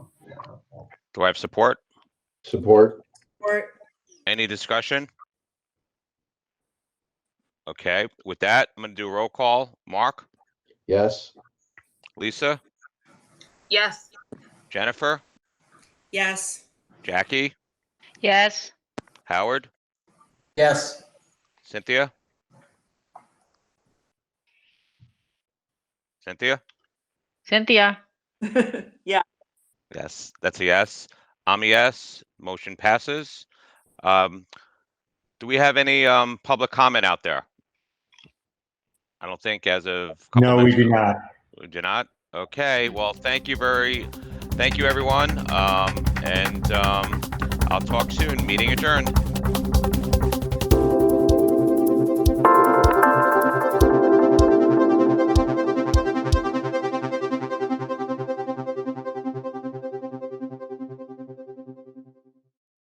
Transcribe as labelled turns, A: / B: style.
A: Do I have support?
B: Support.
C: Or
A: Any discussion? Okay, with that, I'm gonna do a roll call. Mark,
B: Yes.
A: Lisa,
D: Yes.
A: Jennifer,
C: yes,
A: Jackie,
D: Yes.
A: Howard,
E: Yes,
A: Cynthia? Cynthia?
D: Cynthia?
A: Yes, that's a yes. I'm a yes. Motion passes. Um, do we have any, um, public comment out there? I don't think as of. a couple
F: No, we
A: minutes
F: do
A: ago.
F: not.
A: We do not? Okay, well, thank you very, thank you, everyone. Um, and, um, I'll talk soon. Meeting adjourned.